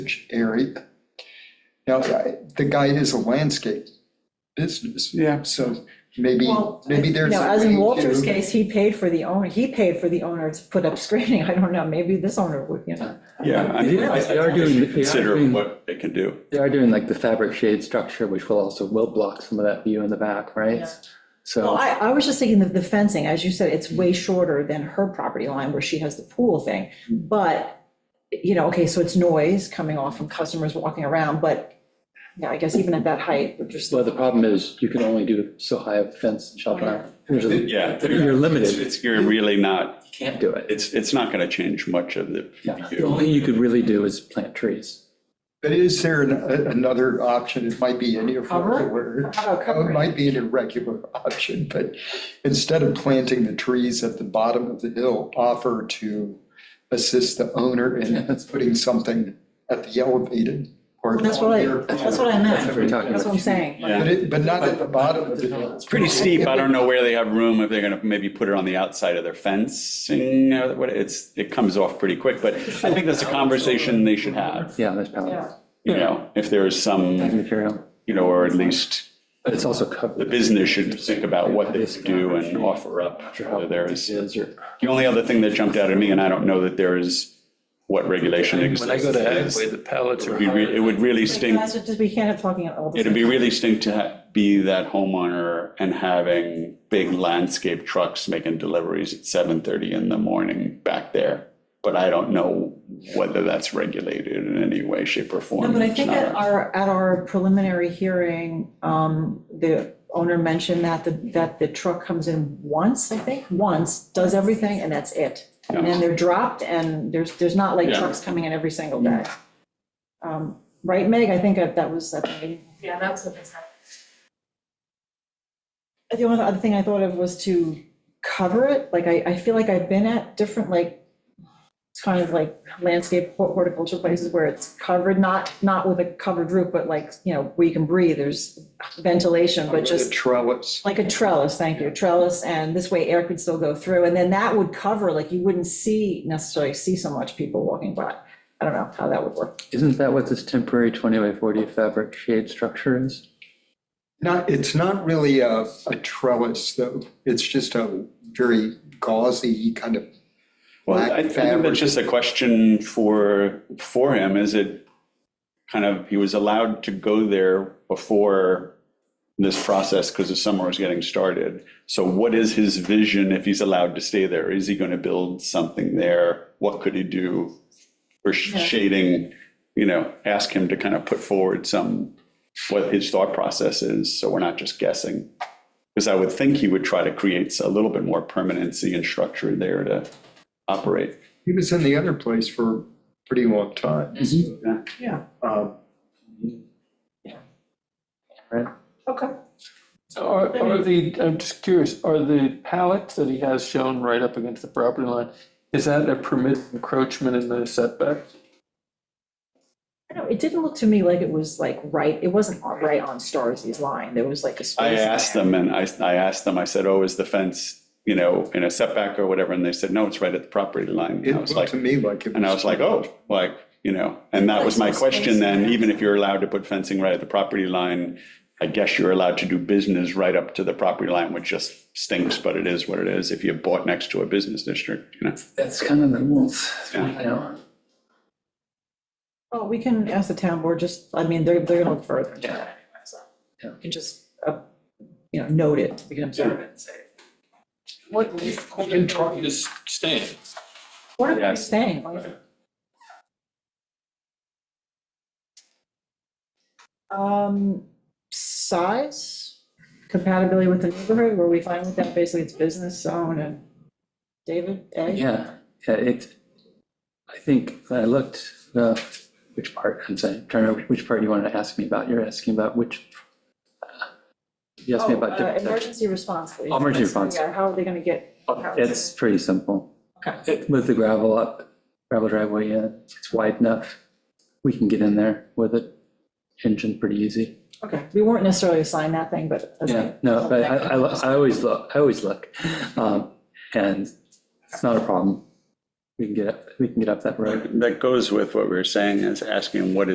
usage area. Now, I- the guy is a landscape business, Yeah, so maybe, Well, maybe there's. No, a as way in to- Walter's case, he paid for the owner, he paid for the owner to put up screening, I don't know, maybe this owner would, you know. yeah. I mean, Yeah, I- they are doing- I should they are Consider doing- what they can do. They are doing like the fabric shade structure, which will also, will block some of that view in the back, right? Yeah. Well, So, I, I was just thinking of the fencing, as you said, it's way shorter than her property line where she has the pool thing. But, you know, okay, so it's noise coming off from customers walking around, but, yeah, I guess even at that height, we're just. well, the problem is you can only do so high of fence and shelter. around. There's a- Yeah. You're It's, limited, it's, you're really not, you can't do it. it's, it's not gonna change much of the Yeah. The only thing view. you could really do is plant trees. But is there an- a- another option? It might be an irregular. How about Oh, It covering? might be an irregular option, but instead of planting the trees at the bottom of the hill, offer to assist the owner in That's- putting something at the elevated or. That's what I, on their- that's what I That's what we're meant, talking that's what I'm about. saying. Yeah. But it, but not at the bottom of the hill. It's pretty steep. I don't know where they have room, if they're gonna maybe put it on the outside of their fencing or what, it's, it comes off pretty quick. But I think that's a conversation they should have, Yeah, there's pallets, you know, if there's packing some, material, you know, or at least but it's also the covered. business should think about what they could do and offer up. whether There is, Is or. the only other thing that jumped out at me, and I don't know that there is what regulation exists. When I go to is- Hathaway, the pallets It are would be re- higher. it would really stink, Guys, it just- We can't have talking at all. the it'd be same- really stink to ha- be that homeowner and having big landscape trucks making deliveries at seven thirty in the morning back there. But I don't know whether that's regulated in any way, shape or form. No, but I It's think not. at our, at our preliminary hearing, um, the owner mentioned that, the that the truck comes in once, I think, once, does everything, and that's it. And then they're dropped, and there's, there's not like Yeah. trucks coming in every single day. Um, Right, Meg, I think that that was, at the meeting. Yeah, that's what they said. the only other thing I thought of was to cover it, like, I, I feel like I've been at different, like, it's kind of like landscape hor- horticulture places where it's covered, not, not with a covered roof, but like, you know, where you can breathe, there's ventilation, but With a just Trellis. like a trellis, thank you, trellis, and this way air could still go through, and then that would cover, like, you wouldn't see, necessarily see so much people walking by. I don't know how that would work. Isn't that what this temporary 20 by 40 fabric shade structure is? Not, it's not really a, a trellis though. It's just a very gauzy kind of Well, I- I black think fabric. that's just a question for, for him, is it kind of, he was allowed to go there before this process because the summer was getting started. So what is his vision if he's allowed to stay there? Is he going to build something there? What could he do for sh- shading? You know, ask him to kind of put forward some, what his thought process is, so we're not just guessing. Because I would think he would try to create a little bit more permanency and structure there to operate. He was in the other place for a pretty long time. Yeah. Yeah. Um, Okay. Are, are the, I'm just curious, are the pallets that he has shown right up against the property line, is that a permit encroachment in the setback? I don't know, it didn't look to me like it was like right, it wasn't right on Starzy's line, there was like a space. I in asked there. them and I, I asked them, I said, oh, is the fence, you know, in a setback or whatever? And they said, no, it's right at the property line. It And I was looked like, to me like it was. and I was like, oh, like, you know, and that was my question then, even if you're allowed to put fencing right at the property line, I guess you're allowed to do business right up to the property line, which just stinks, but it is what it is if you bought next to a business district, you know? That's kind of the rules. Yeah. you know. Well, we can ask the town board, just, I mean, they're, they're gonna look further into that anyway, so. Yeah. You can just, uh, you know, note it, we can observe it and say. What is Corning trying to stand? What are you Yes. saying? Um, size, compatibility with the neighborhood, were we fine with that? Basically, it's business zone and David, Ed? Yeah, yeah, it, I think when I looked, uh, which part, I'm sorry, trying to remember which part you wanted to ask me about. You're asking about which. uh, You asked me Oh, about uh, different sections. Emergency response, please. Emergency response. Yeah, how are they gonna get? It's pretty simple. Okay. With the gravel up, gravel driveway, yeah, it's wide enough. We can get in there with it. Engine pretty easy. Okay, we weren't necessarily assigned that thing, but. that's Yeah, fine. no, but I, I, lo- I always look, I always look, um, and it's not a problem. we can get up, we can get up that road. That goes with what we were saying, is asking what